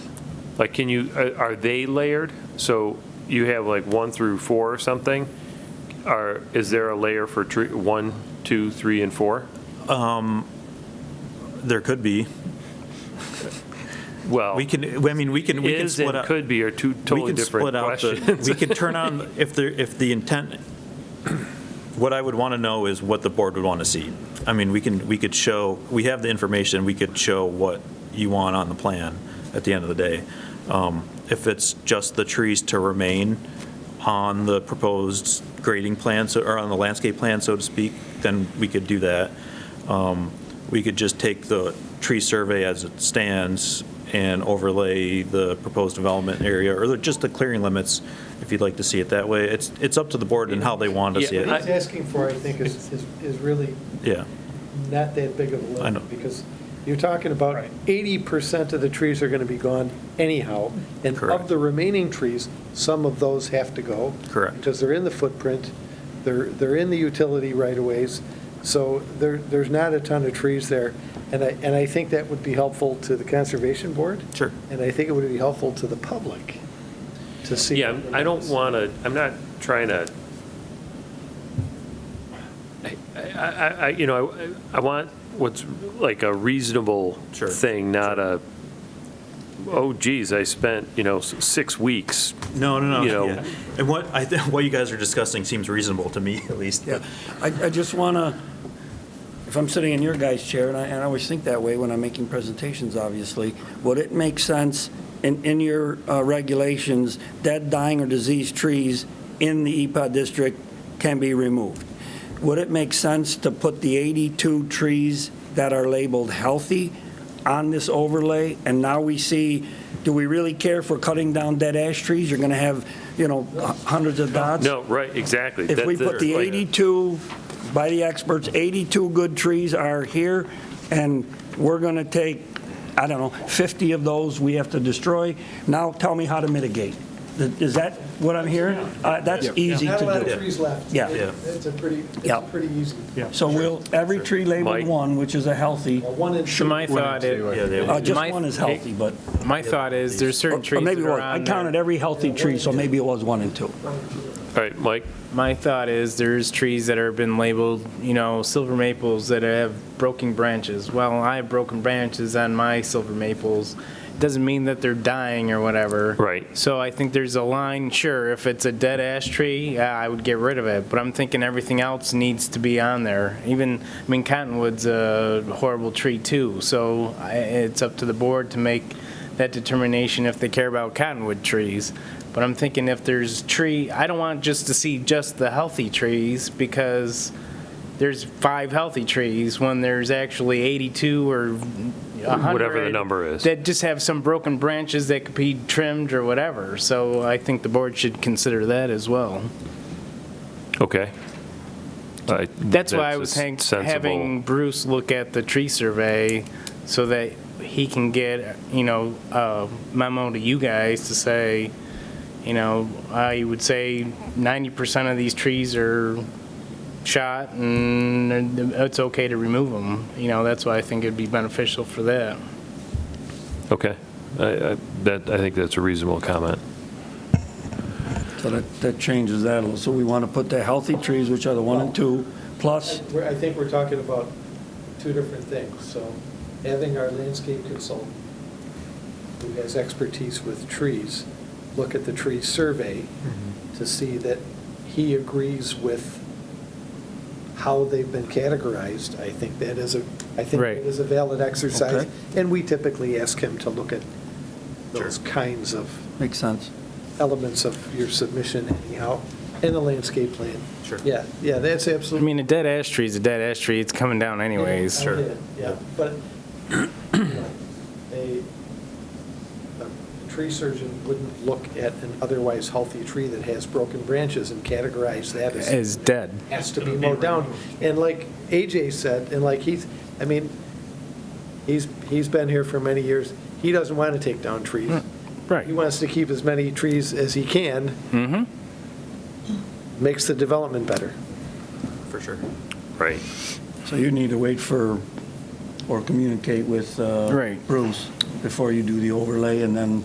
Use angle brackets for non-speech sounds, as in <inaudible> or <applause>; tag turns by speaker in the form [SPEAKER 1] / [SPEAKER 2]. [SPEAKER 1] Like, can you, are- are they layered? So you have like one through four or something? Are, is there a layer for tree, one, two, three, and four?
[SPEAKER 2] There could be.
[SPEAKER 1] Well,
[SPEAKER 2] We can, I mean, we can, we can
[SPEAKER 1] is
[SPEAKER 2] split
[SPEAKER 1] and
[SPEAKER 2] up.
[SPEAKER 1] could be are two
[SPEAKER 2] we
[SPEAKER 1] totally
[SPEAKER 2] can
[SPEAKER 1] different
[SPEAKER 2] split out the- <laughs>
[SPEAKER 1] questions.
[SPEAKER 2] We could turn on, if the, if the intent, <clears throat> what I would want to know is what the board would want to see. I mean, we can, we could show, we have the information, we could show what you want on the plan at the end of the day. Um, If it's just the trees to remain on the proposed grading plan, so- or on the landscape plan, so to speak, then we could do that. Um, We could just take the tree survey as it stands and overlay the proposed development area, or just the clearing limits, if you'd like to see it that way. It's, it's up to the board and how they want to see
[SPEAKER 1] Yeah,
[SPEAKER 2] it.
[SPEAKER 1] I-
[SPEAKER 3] What he's asking for, I think, is, is is really
[SPEAKER 2] Yeah,
[SPEAKER 3] not that big of a
[SPEAKER 2] I
[SPEAKER 3] load.
[SPEAKER 2] know.
[SPEAKER 3] Because you're talking about
[SPEAKER 2] Right.
[SPEAKER 3] eighty percent of the trees are gonna be gone anyhow. And
[SPEAKER 2] Correct.
[SPEAKER 3] of the remaining trees, some of those have to go.
[SPEAKER 2] Correct.
[SPEAKER 3] Because they're in the footprint, they're, they're in the utility right-of-ways. So there, there's not a ton of trees there. And I, and I think that would be helpful to the Conservation Board.
[SPEAKER 2] Sure.
[SPEAKER 3] And I think it would be helpful to the public to see.
[SPEAKER 1] Yeah, I don't want to, I'm not trying to, I- I, I, I- you know, I I want what's like a reasonable
[SPEAKER 2] Sure.
[SPEAKER 1] thing, not a, oh geez, I spent, you know, s- six weeks.
[SPEAKER 2] no, no,
[SPEAKER 1] You know.
[SPEAKER 2] no, yeah. And what, I, <laughs> thi- what you guys are discussing seems reasonable to me, at least.
[SPEAKER 4] Yeah, I, I just want to, if I'm sitting in your guy's chair, and I, and I always think that way when I'm making presentations, obviously, would it make sense in, in your uh, regulations, dead, dying, or diseased trees in the EPA district can be removed? Would it make sense to put the 82 trees that are labeled healthy on this overlay? And now we see, do we really care for cutting down dead ash trees? You're going to have, you know, hundreds of dots?
[SPEAKER 1] No, right, exactly.
[SPEAKER 4] If
[SPEAKER 1] That-
[SPEAKER 4] we
[SPEAKER 1] that-
[SPEAKER 4] put the
[SPEAKER 1] like-
[SPEAKER 4] 82, by the experts, 82 good trees are here, and we're going to take, I don't know, 50 of those we have to destroy, now tell me how to mitigate. Is that what I'm hearing? Uh, That's easy
[SPEAKER 3] Not a lot
[SPEAKER 4] to
[SPEAKER 3] of
[SPEAKER 4] do.
[SPEAKER 3] trees left.
[SPEAKER 4] Yeah.
[SPEAKER 2] Yeah.
[SPEAKER 3] It's a pretty, it's
[SPEAKER 4] Yeah.
[SPEAKER 3] a pretty easy.
[SPEAKER 4] So we'll, every tree labeled
[SPEAKER 1] Mike.
[SPEAKER 4] one, which is a healthy,
[SPEAKER 3] Well, One and two.
[SPEAKER 5] So my thought
[SPEAKER 2] Yeah,
[SPEAKER 5] is,
[SPEAKER 2] they
[SPEAKER 4] uh,
[SPEAKER 2] would.
[SPEAKER 4] just
[SPEAKER 5] My-
[SPEAKER 4] one is healthy, but,
[SPEAKER 5] my thought is, there's
[SPEAKER 4] or
[SPEAKER 5] certain
[SPEAKER 4] or
[SPEAKER 5] trees
[SPEAKER 4] maybe
[SPEAKER 5] that are
[SPEAKER 4] one. I
[SPEAKER 5] on
[SPEAKER 4] counted
[SPEAKER 5] there.
[SPEAKER 4] every healthy tree, so maybe it was one and two.
[SPEAKER 1] All right, Mike,
[SPEAKER 5] My thought is, there's trees that have been labeled, you know, silver maples that have broken branches. Well, I have broken branches on my silver maples. Doesn't mean that they're dying or whatever.
[SPEAKER 1] Right.
[SPEAKER 5] So I think there's a line, sure, if it's a dead ash tree, yeah, I would get rid of it, but I'm thinking everything else needs to be on there. Even, I mean, cottonwood's a horrible tree too, so I- it's up to the board to make that determination if they care about cottonwood trees. But I'm thinking if there's tree, I don't want just to see just the healthy trees because there's five healthy trees when there's actually 82 or 100.
[SPEAKER 1] Whatever the number is.
[SPEAKER 5] That just have some broken branches that could be trimmed or whatever. So I think the board should consider that as well.
[SPEAKER 1] okay. I-
[SPEAKER 5] That's why I was
[SPEAKER 1] a
[SPEAKER 5] hang-
[SPEAKER 1] sensible-
[SPEAKER 5] having Bruce look at the tree survey so that he can get, you know, a memo to you guys to say, you know, I would say 90% of these trees are shot and it's okay to remove them. You know, that's why I think it'd be beneficial for that.
[SPEAKER 1] Okay, I, I, that, I think that's a reasonable comment.
[SPEAKER 4] So that, that changes that a little. So we want to put the healthy trees, which are the one and two, plus
[SPEAKER 3] I- we're- I think we're talking about two different things. So having our landscape consultant, who has expertise with trees, look at the tree survey to see that he agrees with how they've been categorized. I think that is a, I think
[SPEAKER 5] Right.
[SPEAKER 3] that is a valid exercise.
[SPEAKER 4] Okay.
[SPEAKER 3] And we typically ask him to look at those kinds of
[SPEAKER 4] Makes sense.
[SPEAKER 3] elements of your submission anyhow, in the landscape plan.
[SPEAKER 2] Sure.
[SPEAKER 3] Yeah, yeah, that's
[SPEAKER 5] I
[SPEAKER 3] absolutely.
[SPEAKER 5] mean, a dead ash tree is a dead ash tree. It's coming down anyways.
[SPEAKER 3] I get it, Yeah, but you know, a, a tree surgeon wouldn't look at an otherwise healthy tree that has broken branches and categorize that as,
[SPEAKER 5] Is dead.
[SPEAKER 3] has to be mowed down. And like AJ said, and like he's, I mean, he's, he's been here for many years, he doesn't want to take down trees.
[SPEAKER 5] Right.
[SPEAKER 3] He wants to keep as many trees as he can,
[SPEAKER 5] Mm-hmm.
[SPEAKER 3] makes the development better.
[SPEAKER 2] For sure.
[SPEAKER 1] Right.
[SPEAKER 4] So you need to wait for, or communicate with uh,
[SPEAKER 5] Right.
[SPEAKER 4] Bruce before you do the overlay, and then